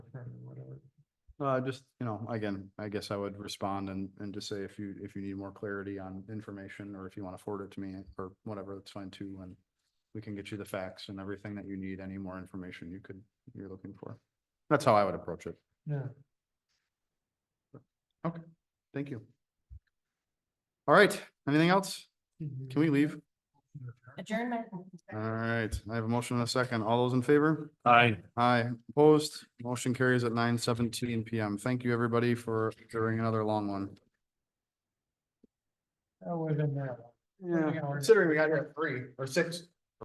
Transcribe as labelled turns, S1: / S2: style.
S1: Uh, just, you know, again, I guess I would respond and, and just say if you, if you need more clarity on information or if you want to forward it to me or whatever, that's fine too. And we can get you the facts and everything that you need, any more information you could, you're looking for. That's how I would approach it.
S2: Yeah.
S1: Okay, thank you. All right, anything else? Can we leave?
S3: Adjournment.
S1: All right, I have a motion and a second. All those in favor?
S2: Aye.
S1: Aye, opposed, motion carries at nine seventeen PM. Thank you, everybody, for during another long one.
S2: That would have been there.
S1: Yeah,
S2: Three hours.
S1: considering we got here at three or six.